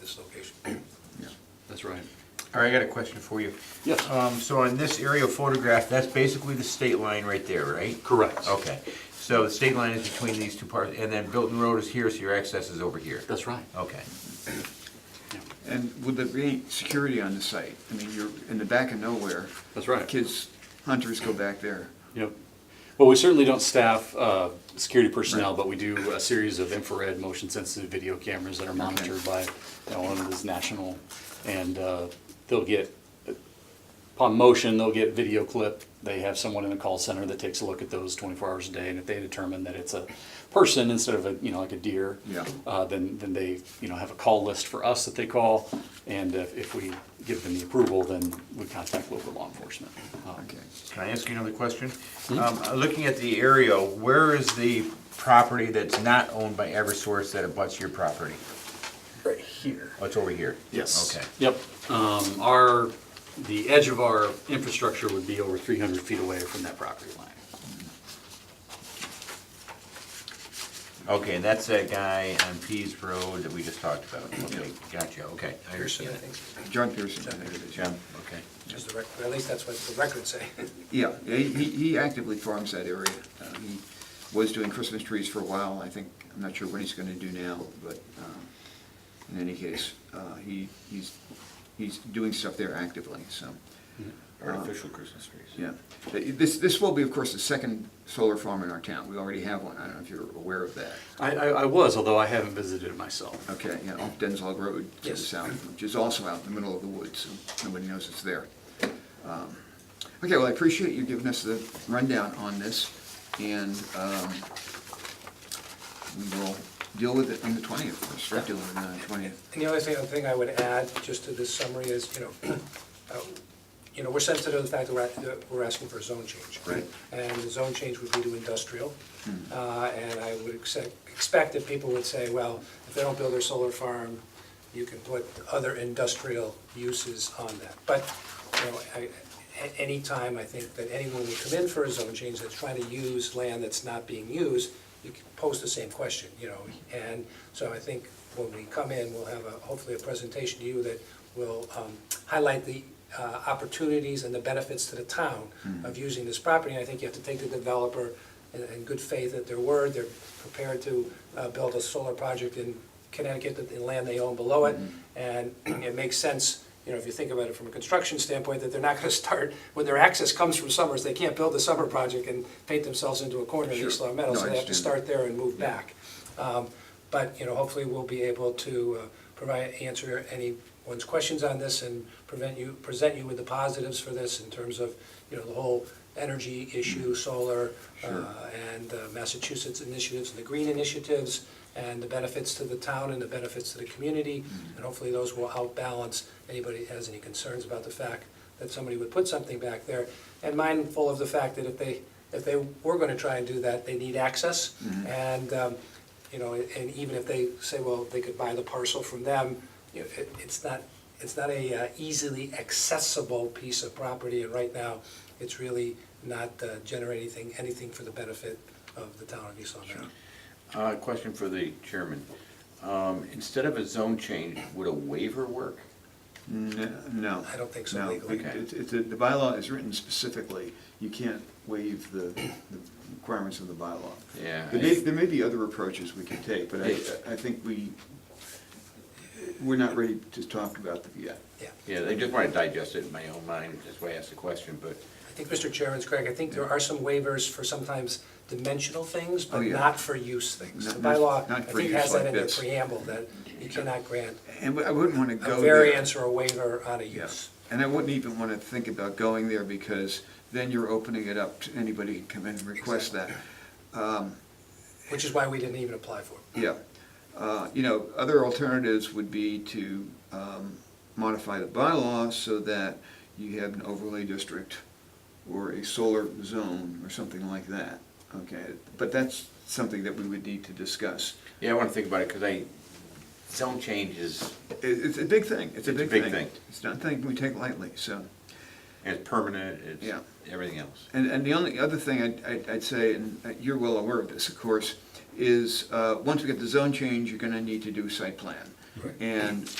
this location. Yeah, that's right. All right, I got a question for you. Yes. Um, so on this aerial photograph, that's basically the state line right there, right? Correct. Okay, so the state line is between these two parts, and then Bilton Road is here, so your access is over here. That's right. Okay. And would there be any security on the site? I mean, you're in the back of nowhere. That's right. Kids, hunters go back there. Yep. Well, we certainly don't staff uh, security personnel, but we do a series of infrared motion-sensitive video cameras that are monitored by, you know, one of these national, and uh, they'll get, upon motion, they'll get video clip. They have someone in the call center that takes a look at those 24 hours a day, and if they determine that it's a person instead of a, you know, like a deer, Yeah. uh, then, then they, you know, have a call list for us that they call, and if if we give them the approval, then we contact local law enforcement. Um, Okay. Can I ask you another question? Um, Mm-hmm. looking at the aerial, where is the property that's not owned by Eversource that abuts your property? Right here. Oh, it's over here? Yes. Okay. Yep. Um, Our, the edge of our infrastructure would be over 300 feet away from that property line. Okay, and that's that guy on Pease Road that we just talked about. Okay, gotcha, okay, I Pearson, I understand it. think, John Pearson, I think it is, yeah. Okay. is the record, at least that's what the records say. Yeah, he, he he actively farms that area. Uh, He was doing Christmas trees for a while, I think, I'm not sure what he's gonna do now, but um, in any case, uh, he, he's, he's doing stuff there actively, so, Artificial Christmas trees. yeah. This, this will be, of course, the second solar farm in our town. We already have one, I don't know if you're aware of that. I, I I was, although I haven't visited it myself. Okay, yeah, off Denzog Road to the Yes. south, which is also out in the middle of the woods, so nobody knows it's there. Um, Okay, well, I appreciate you giving us the rundown on this, and um, we will deal with it on the 20th, or start dealing with it on the 20th. And the only thing, thing I would add, just to this summary, is, you know, uh, you know, we're sensitive to the fact that we're, at- we're asking for a zone change. Right. And the zone change would be to industrial. Uh, and I would expect, expect that people would say, well, if they don't build their solar farm, you can put other industrial uses on that. But, you know, I, a- any time I think that anyone would come in for a zone change that's trying to use land that's not being used, you can pose the same question, you know? And so I think when we come in, we'll have a, hopefully a presentation to you that will, um, highlight the, uh, opportunities and the benefits to the town of using this property. And I think you have to take the developer in, in good faith at their word, they're prepared to uh, build a solar project in Connecticut, that the land they own below it, Mm-hmm. and it makes sense, you know, if you think about it from a construction standpoint, that they're not gonna start, when their access comes from Summers, they can't build the summer project and paint themselves into a corner in Sure. East Long Meadow, No, I so they have to understand. start there and move back. Um, But, you know, hopefully we'll be able to uh, provide, answer anyone's questions on this and prevent you, present you with the positives for this in terms of, you know, the whole energy issue, solar, uh, and uh, Massachusetts initiatives, and the green initiatives, and the benefits to the town and the benefits to the community. And hopefully those will outbalance anybody that has any concerns about the fact that somebody would put something back there. And mindful of the fact that if they, if they were gonna try and do that, they need access. And, um, you know, and even if they say, well, they could buy the parcel from them, you know, it, it's not, it's not a uh, easily accessible piece of property, and right now, it's really not uh, generating anything, anything for the benefit of the town of East Long Meadow. Uh, question for the chairman. Um, instead of a zone change, would a waiver work? N- No. I don't think so No, legally. it- it- it- The bylaw is written specifically, you can't waive the the requirements of the bylaw. Yeah, There may, I- there may be other approaches we can take, but I, I think we, we're not ready to talk about them yet. Yeah. Yeah, I just want to digest it in my own mind, that's why I asked the question, but I think Mr. Chairman's correct, I think there are some waivers for sometimes dimensional things, Oh, but yeah. not for use things. The Not- not- bylaw, I not for think, use has that like in the this. preamble, that you cannot grant And I wouldn't want to go a there. variance or a waiver on a Yeah. use. And I wouldn't even want to think about going there because then you're opening it up to anybody who can come in and request that. Which is why we didn't even apply for it. Yeah. Uh, You know, other alternatives would be to um, modify the bylaw so that you have an overlay district or a solar zone or something like that, okay? But that's something that we would need to discuss. yeah, I want to think about it because I, zone change is, It- It's a big thing, it's a big thing. thing. It's not a thing we take lightly, so. it's permanent, it's Yeah. everything else. And, and the only other thing I'd, I'd- I'd say, and uh, you're well aware of this, of course, is, uh, once we get the zone change, you're gonna need to do site plan. And